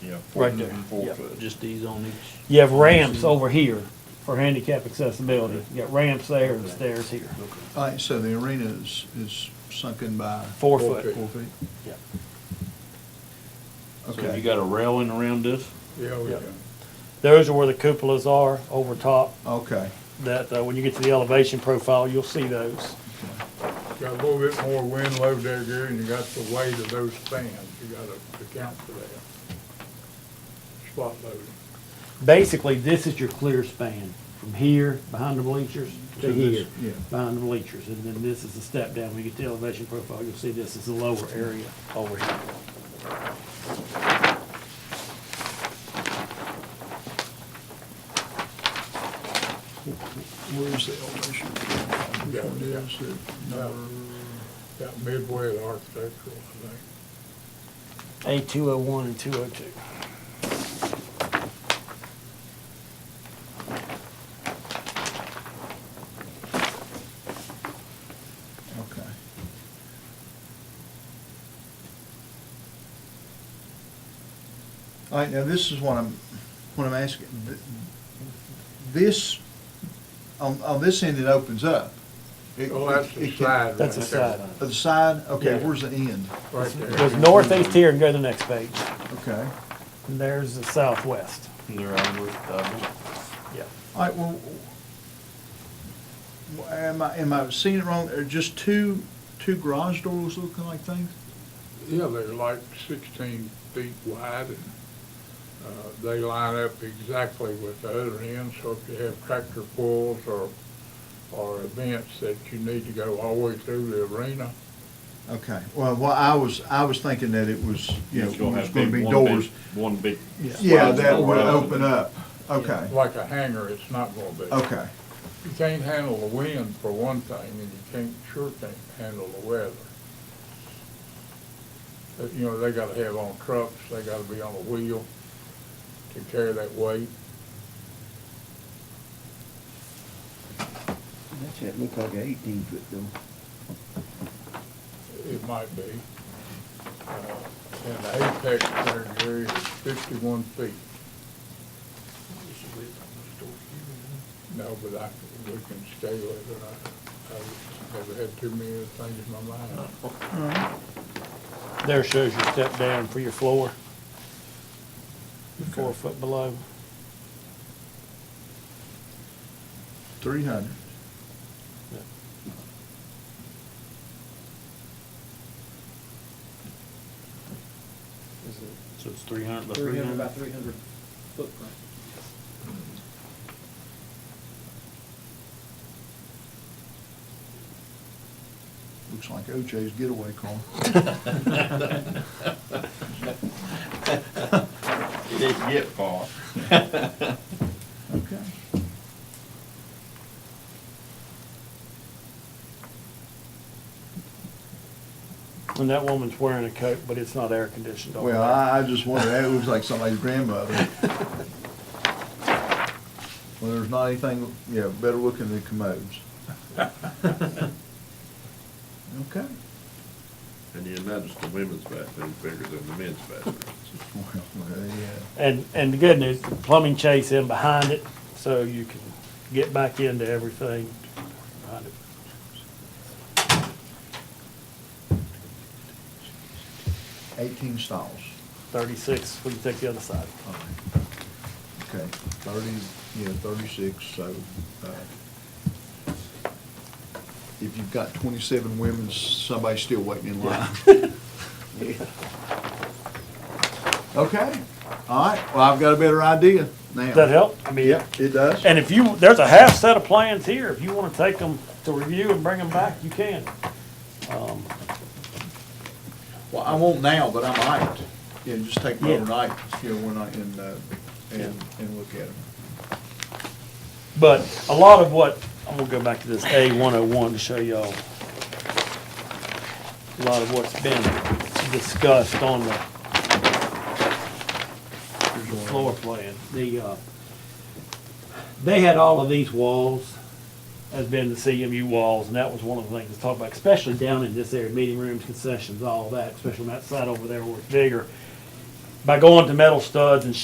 yeah. Right there. Four Yep. foot. Just these on each. You have ramps over here for handicap accessibility. You got ramps there and stairs here. All right, so the arena is, is sunken by Four foot. four feet? Yep. So you Okay, got a railing around this? Yeah, we Yep. got- Those are where the cupolas are over top. okay. That, uh, when you get to the elevation profile, you'll see those. got a little bit more wind load there, Gary, and you got the weight of those fans. You gotta account for that. Spot loading. Basically, this is your clear span from here, behind the bleachers, to To here, this, yeah. behind the bleachers. And then this is the step down. When you get to elevation profile, you'll see this is the lower area over here. Where's the elevation? Which one is it? Number- Got midway of the architectural, I think. A two oh one and two oh two. Okay. All right, now this is what I'm, what I'm asking. Th- This, on, on this end, it opens up. It- Oh, that's the it can- side. That's the right there. side. Oh, The side, okay, Yeah. where's the end? Right there. There's northeast here and go to the next page. Okay. And there's the southwest. They're on with, uh, Yeah. All right, well, w- am I, am I seeing it wrong? Are just two, two garage doors looking like things? Yeah, they're like sixteen feet wide and, uh, they line up exactly with the other end. So if you have tractor pulls or, or events that you need to go all the way through the arena, Okay, well, well, I was, I was thinking that it was, you know, It's gonna it was have gonna big, be one big- doors. One big. Yeah, slide that would door. open up, okay, like a hangar, it's not gonna be. okay, You can't handle the wind for one thing, and you can't, sure can't handle the weather. But, you know, they gotta have on trucks, they gotta be on a wheel to carry that weight. That's it, look like an eighteen foot though. It might be. Uh, And the apex there, Gary, is fifty-one feet. No, but I, we can scale it, but I, I never had too many things in my mind. There shows your step down for your floor. Four foot below. three hundred. so it's three hundred by Three three hundred by hundred. three hundred footprint. Looks like OJ's getaway car. It didn't get far. Okay. And that woman's wearing a coat, but it's not air conditioned. all Well, the way. I, I just wondered, that looks like somebody's grandmother. Well, there's not anything, yeah, better looking than commodes. Okay. And you notice the women's bathroom bigger than the men's bathroom. Well, yeah. And, and the good news, the plumbing chase in behind it, so you can get back into everything. behind it. Eighteen stalls. Thirty-six, when you take the other side. All right. Okay, thirty, yeah, thirty-six, so, uh, if you've got twenty-seven women, somebody's still waiting in line. Okay, all right, well, I've got a better idea now. Does that help? I mean, Yeah, it does. And if you, there's a half set of plans here. If you want to take them to review and bring them back, you can. Um, Well, I won't now, but I might, you know, just take them Yeah. overnight, you know, when I, and, uh, and, and look at them. But a lot of what, I'm gonna go back to this A one oh one to show y'all. A lot of what's been discussed on the floor plan, the, uh, they had all of these walls as being the CMU walls, and that was one of the things to talk about, especially down in this area, meeting rooms, concessions, all that, especially on that side over there where it's bigger. by going to metal studs and